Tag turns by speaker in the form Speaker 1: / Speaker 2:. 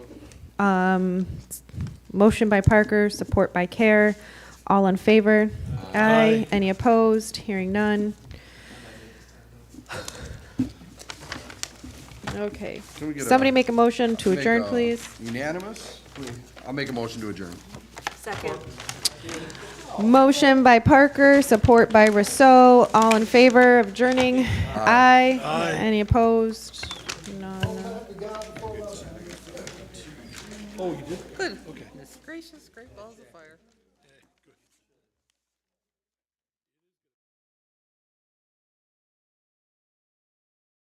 Speaker 1: Um, s- Motion by Parker, support by Care. All in favor? Aye. Any opposed? Hearing none. Okay.
Speaker 2: Can we get a-
Speaker 1: Somebody make a motion to
Speaker 2: Make,
Speaker 1: adjourn,
Speaker 2: uh,
Speaker 1: please.
Speaker 2: Unanimous? Please. I'll make a motion to adjourn.
Speaker 3: Second.
Speaker 1: Motion by Parker, support by Rousseau. All in favor of adjourning? Aye. Any opposed? None.
Speaker 3: Goodness gracious, great balls of fire.